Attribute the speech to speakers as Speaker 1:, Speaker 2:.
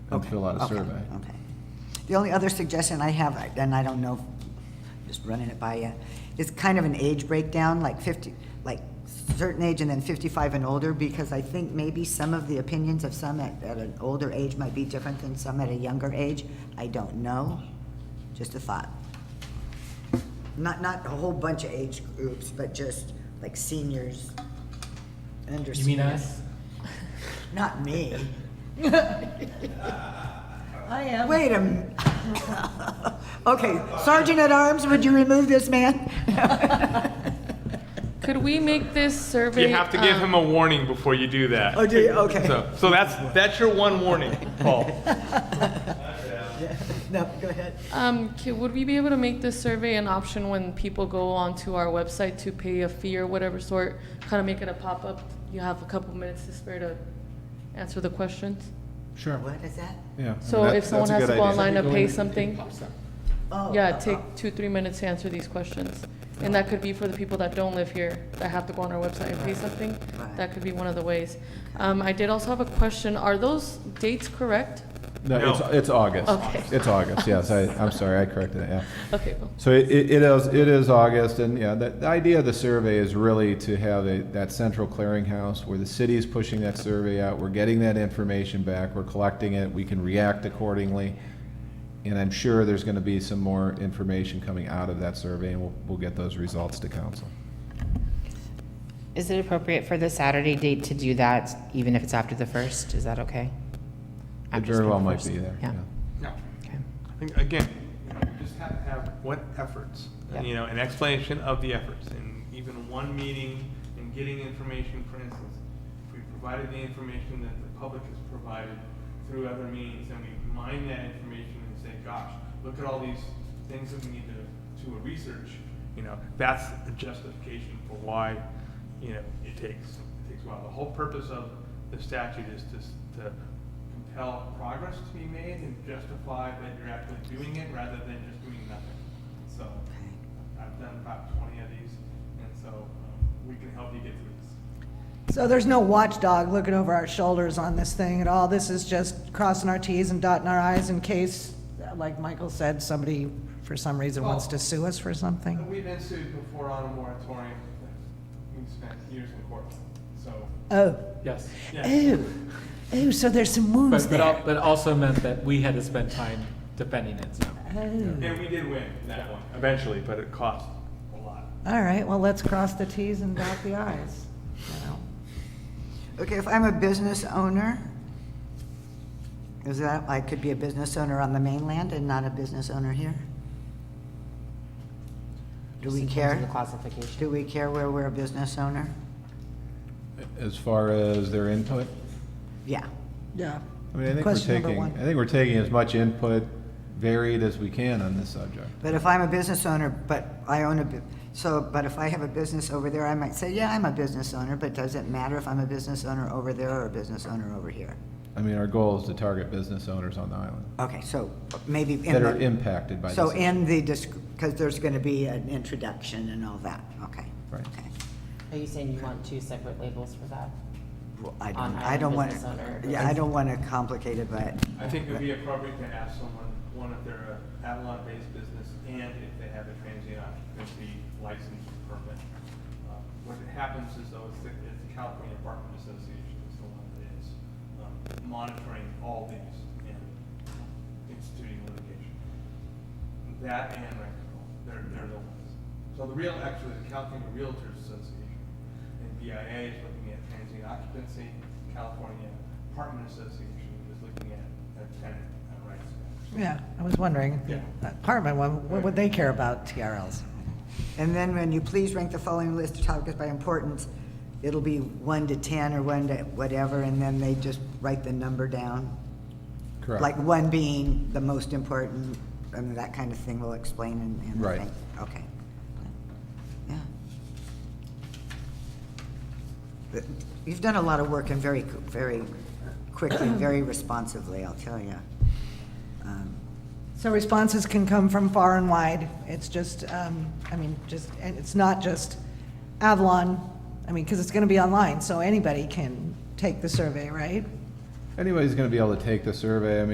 Speaker 1: fill out a
Speaker 2: Okay,
Speaker 1: survey.
Speaker 2: Okay. The only other suggestion I have, I- and I don't know, just running it by you, is kind of an age breakdown, like 50, like certain age and then 55 and older, because I think maybe some of the opinions of some at, at an older age might be different than some at a younger age. I don't know. Just a thought. Not, not a whole bunch of age groups, but just like seniors, under
Speaker 3: You mean uh,
Speaker 2: seniors.
Speaker 3: us?
Speaker 2: Not me.
Speaker 4: I am.
Speaker 2: Wait a m- Okay, Sergeant at Arms, would you remove this man?
Speaker 5: Could we make this survey?
Speaker 6: You have to give
Speaker 5: um,
Speaker 6: him a warning before you do that.
Speaker 2: Oh, do you? Okay.
Speaker 6: So, so that's, that's your one warning, Paul.
Speaker 2: No, go ahead.
Speaker 5: Um, ca- would we be able to make this survey an option when people go onto our website to pay a fee or whatever sort? Kind of make it a pop-up, you have a couple minutes to spare to answer the questions?
Speaker 1: Sure,
Speaker 2: What is that?
Speaker 1: yeah. I mean,
Speaker 5: So
Speaker 1: that-
Speaker 5: if someone
Speaker 1: that's a
Speaker 5: has to
Speaker 1: good
Speaker 5: go
Speaker 1: idea.
Speaker 5: online to
Speaker 3: Go in
Speaker 5: pay
Speaker 3: and it
Speaker 5: something,
Speaker 3: pops up.
Speaker 2: Oh,
Speaker 5: yeah,
Speaker 2: uh,
Speaker 5: take two, three minutes to answer these questions. And that could be for the people that don't live here, that have to go on our website and pay something.
Speaker 2: Right.
Speaker 5: That could be one of the ways. Um, I did also have a question, are those dates correct?
Speaker 1: No, it's,
Speaker 6: No.
Speaker 1: it's August.
Speaker 5: Okay.
Speaker 1: It's August, yes, I, I'm sorry, I corrected it, yeah.
Speaker 5: Okay, well.
Speaker 1: So it, it it is, it is August, and yeah, the, the idea of the survey is really to have a, that central clearinghouse where the city is pushing that survey out, we're getting that information back, we're collecting it, we can react accordingly. And I'm sure there's gonna be some more information coming out of that survey, and we'll, we'll get those results to council.
Speaker 7: Is it appropriate for the Saturday date to do that, even if it's after the first? Is that
Speaker 1: It
Speaker 7: okay? After
Speaker 1: very well
Speaker 7: the
Speaker 1: might
Speaker 7: first?
Speaker 1: be there,
Speaker 7: Yeah.
Speaker 1: yeah.
Speaker 6: No.
Speaker 7: Okay.
Speaker 6: I think, again, you know, you just have to have what efforts,
Speaker 7: Yeah.
Speaker 6: you know, an explanation of the efforts, and even one meeting and getting information, for instance, if we provided the information that the public has provided through other means, and we mine that information and say, gosh, look at all these things that we need to, to research, you know, that's a justification for why, you know, it takes, it takes a while. The whole purpose of the statute is to, s- to compel progress to be made and justify that you're actually doing it rather than just doing nothing. So I've done about twenty of these, and so um, we can help you get through this.
Speaker 4: So there's no watchdog looking over our shoulders on this thing at all. This is just crossing our Ts and dotting our Is in case, like Michael said, somebody for some reason wants
Speaker 2: Oh.
Speaker 4: to sue us for
Speaker 6: And
Speaker 4: something.
Speaker 6: We've been sued before on a moratorium. We've spent years in court, so.
Speaker 4: Oh,
Speaker 3: Yes.
Speaker 6: yeah.
Speaker 4: oh, oh, so there's some wounds
Speaker 3: But, but, al-
Speaker 4: there.
Speaker 3: but also meant that we had to spend time defending it, so.
Speaker 4: Oh.
Speaker 6: And we did win that one eventually, but it cost a lot.
Speaker 4: All right, well, let's cross the Ts and dot the Is. you know.
Speaker 2: Okay, if I'm a business owner, is that, I could be a business owner on the mainland and not a business owner here? Do
Speaker 7: Just
Speaker 2: we
Speaker 7: in terms of
Speaker 2: care?
Speaker 7: The classification.
Speaker 2: Do we care where we're a business owner?
Speaker 1: As far as their input,
Speaker 2: Yeah.
Speaker 4: Yeah.
Speaker 1: I mean, I think we're
Speaker 4: Question number
Speaker 1: taking,
Speaker 4: one.
Speaker 1: I think we're taking as much input varied as we can on this subject.
Speaker 2: But if I'm a business owner, but I own a, bu- so, but if I have a business over there, I might say, yeah, I'm a business owner, but does it matter if I'm a business owner over there or a business owner over here?
Speaker 1: I mean, our goal is to target business owners on the island
Speaker 2: Okay, so maybe. in
Speaker 1: that are
Speaker 2: the-
Speaker 1: impacted by this.
Speaker 2: So
Speaker 1: issue.
Speaker 2: in the, because there's going to be an introduction and all that, okay.
Speaker 1: Right.
Speaker 2: okay.
Speaker 7: Are you saying you want two separate labels for that?
Speaker 2: Well, I
Speaker 7: On
Speaker 2: don't, I don't want,
Speaker 7: business owner.
Speaker 2: yeah, I don't want to complicate it, but.
Speaker 6: I think it would be appropriate to ask someone, one, if they're a Avalon-based business and if they have a transient occupancy license or permit. Uh, What happens is though, it's the, it's the California Apartment Association is the one that is um, monitoring all these and instituting litigation. That and Rent Control, they're, they're the ones. So the real, actually, the California Realtors Association and BIA is looking at transient occupancy, California Apartment Association is looking at, at tenant uh, rights.
Speaker 4: Yeah, I was wondering,
Speaker 6: Yeah.
Speaker 4: apartment, what, what would they care about TRLs?
Speaker 2: And then when you please rank the following list of topics by importance, it'll be one to 10 or one to whatever, and then they just write the number down.
Speaker 1: Correct.
Speaker 2: Like one being the most important, and that kind of thing will explain and, and. the
Speaker 1: Right.
Speaker 2: thing. Okay. Yeah. But You've done a lot of work and very, qu- very quickly, very responsively, I'll tell Um, you.
Speaker 4: So responses can come from far and wide. It's just, um, I mean, just, and it's not just Avalon, I mean, because it's going to be online, so anybody can take the survey, right?
Speaker 1: Anybody's going to be able to take the survey. I mean,